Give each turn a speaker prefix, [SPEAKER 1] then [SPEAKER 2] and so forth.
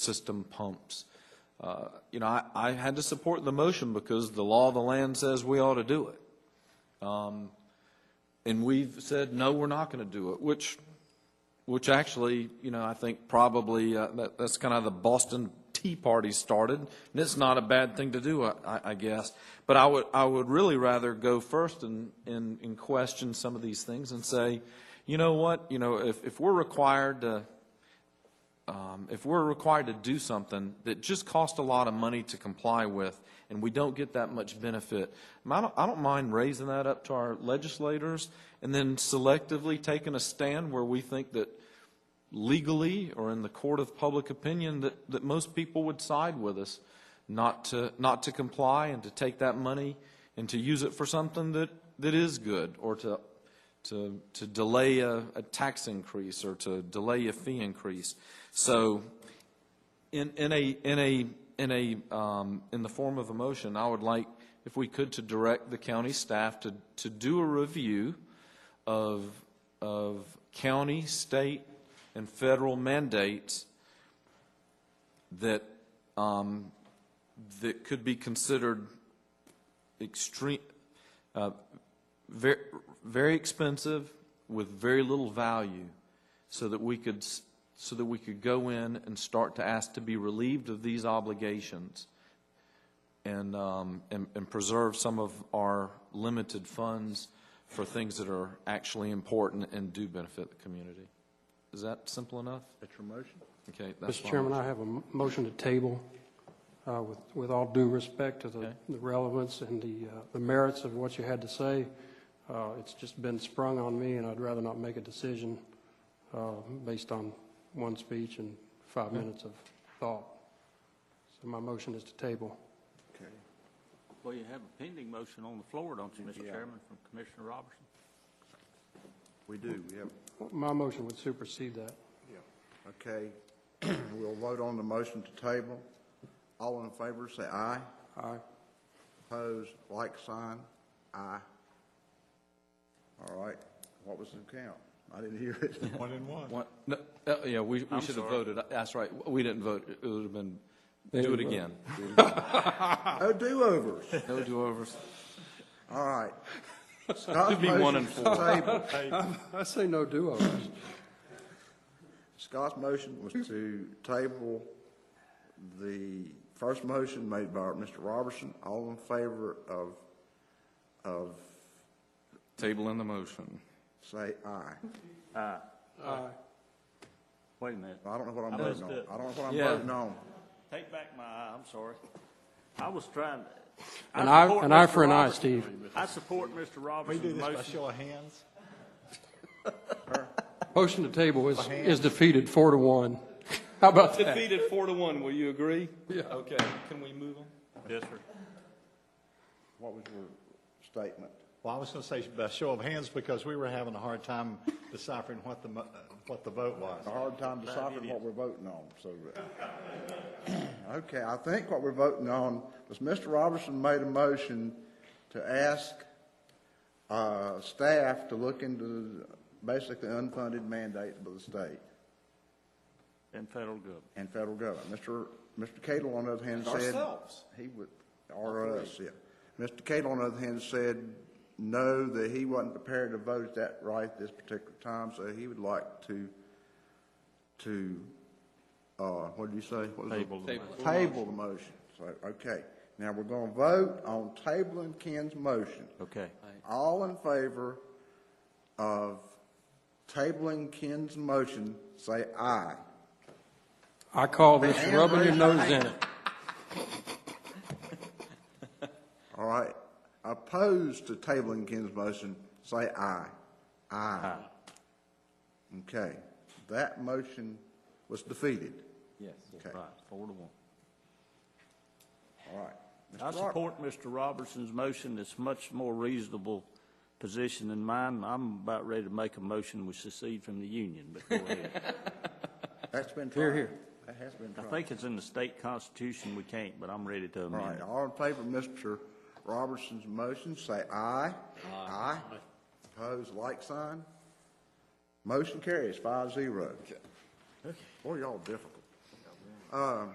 [SPEAKER 1] system pumps. Uh, You know, I, I had to support the motion because the law of the land says we ought to do it. Um, And we've said, no, we're not going to do it, which, which actually, you know, I think probably, uh, that, that's kind of the Boston Tea Party started, and it's not a bad thing to do, I, I- I guess. But I would, I would really rather go first and, and, and question some of these things and say, you know what, you know, if, if we're required to, um, if we're required to do something that just costs a lot of money to comply with and we don't get that much benefit, I don't, I don't mind raising that up to our legislators and then selectively taking a stand where we think that legally or in the court of public opinion that, that most people would side with us not to, not to comply and to take that money and to use it for something that, that is good or to, to, to delay a, a tax increase or to delay a fee increase. So in, in a, in a, in a, um, in the form of a motion, I would like, if we could, to direct the county staff to, to do a review of, of county, state, and federal mandates that, um, that could be considered extreme, uh, very, very expensive with very little value, so that we could, s- so that we could go in and start to ask to be relieved of these obligations and, um, and, and preserve some of our limited funds for things that are actually important and do benefit the community. Is that simple enough?
[SPEAKER 2] That's your motion?
[SPEAKER 1] Okay. that's
[SPEAKER 3] Mr.
[SPEAKER 1] my
[SPEAKER 3] Chairman,
[SPEAKER 1] motion.
[SPEAKER 3] I have a m- motion to table uh, with with all due respect to the
[SPEAKER 1] Okay.
[SPEAKER 3] the relevance and the uh, the merits of what you had to say. Uh, It's just been sprung on me, and I'd rather not make a decision uh, based on one speech and five minutes of thought. So my motion is to table.
[SPEAKER 2] Okay.
[SPEAKER 4] Well, you have a pending motion on the floor, don't you, Mr.
[SPEAKER 2] Yeah.
[SPEAKER 4] Chairman, from Commissioner Robertson?
[SPEAKER 2] We do, we have,
[SPEAKER 3] My motion would supersede that.
[SPEAKER 2] yeah. Okay. We'll vote on the motion to table. All in favor, say aye.
[SPEAKER 3] Aye.
[SPEAKER 2] Opposed, like sign, aye. All right. What was the count? I didn't hear it.
[SPEAKER 5] One and one.
[SPEAKER 1] What- no, uh, Yeah, we, we
[SPEAKER 4] I'm
[SPEAKER 1] should have
[SPEAKER 4] sorry.
[SPEAKER 1] voted. That's right. We didn't vote. It would have been, do it again.
[SPEAKER 2] No Oh, do-overs.
[SPEAKER 1] No do-overs.
[SPEAKER 2] All right. Scott's
[SPEAKER 1] be one and
[SPEAKER 2] motion was tabled.
[SPEAKER 3] I say no do-overs.
[SPEAKER 2] Scott's motion was to table the first motion made by Mr. Robertson. All in favor of, of,
[SPEAKER 1] Table in the motion.
[SPEAKER 2] say aye.
[SPEAKER 3] Aye.
[SPEAKER 4] Wait a minute.
[SPEAKER 2] I don't know what I'm
[SPEAKER 4] I
[SPEAKER 2] voting
[SPEAKER 4] missed
[SPEAKER 2] on.
[SPEAKER 4] it.
[SPEAKER 2] I don't know what I'm
[SPEAKER 1] Yeah.
[SPEAKER 2] voting on.
[SPEAKER 4] Take back my aye, I'm sorry. I was trying.
[SPEAKER 3] An eye-
[SPEAKER 4] support
[SPEAKER 3] an eye
[SPEAKER 4] Mr.
[SPEAKER 3] for an eye,
[SPEAKER 4] Robertson.
[SPEAKER 3] Steve.
[SPEAKER 4] I support Mr.
[SPEAKER 5] We do
[SPEAKER 4] Robertson's
[SPEAKER 5] this by
[SPEAKER 4] motion.
[SPEAKER 5] show of hands?
[SPEAKER 3] Motion to table is is defeated four to one. How about that?
[SPEAKER 1] Defeated four to one, will you agree?
[SPEAKER 3] Yeah.
[SPEAKER 1] Okay, can we move on?
[SPEAKER 4] Yes, sir.
[SPEAKER 2] What was your statement?
[SPEAKER 5] Well, I was going to say by show of hands because we were having a hard time deciphering what the, mo- uh, what the vote was.
[SPEAKER 2] A hard time deciding what we're voting on, so. uh, Okay, I think what we're voting on was Mr. Robertson made a motion to ask, uh, staff to look into basically unfunded mandates by the state
[SPEAKER 4] And federal government.
[SPEAKER 2] and federal government. Mr. Mr. Cato, on the other hand, said.
[SPEAKER 5] Ourselves.
[SPEAKER 2] He would, or us, yeah. Mr. Cato, on the other hand, said no, that he wasn't prepared to vote at that right this particular time, so he would like to, to, uh, what did you say? What was it?
[SPEAKER 4] Table the Table.
[SPEAKER 2] Table the motion. So, okay. Now, we're gonna vote on tabling Ken's motion.
[SPEAKER 4] Okay.
[SPEAKER 2] All in favor of tabling Ken's motion, say aye.
[SPEAKER 3] I call this
[SPEAKER 2] And
[SPEAKER 3] rubbing your
[SPEAKER 2] raise
[SPEAKER 3] nose in it.
[SPEAKER 2] All right. Opposed to tabling Ken's motion, say aye. Aye. Okay. That motion was defeated.
[SPEAKER 1] Yes.
[SPEAKER 2] Okay.
[SPEAKER 4] Right, four to one.
[SPEAKER 2] All right. Mr.
[SPEAKER 4] I
[SPEAKER 2] Roberts.
[SPEAKER 4] support Mr. Robertson's motion. It's much more reasonable position than mine. I'm about ready to make a motion we secede from the union, but go ahead.
[SPEAKER 2] That's been tried. Here, here. That has been
[SPEAKER 4] I
[SPEAKER 2] tried.
[SPEAKER 4] think it's in the state constitution, we can't, but I'm ready to
[SPEAKER 2] All
[SPEAKER 4] amend
[SPEAKER 2] right.
[SPEAKER 4] it.
[SPEAKER 2] All in favor of Mr. Robertson's motion, say aye. Aye. Opposed, like sign. Motion carries five zero. Boy, y'all difficult. Um,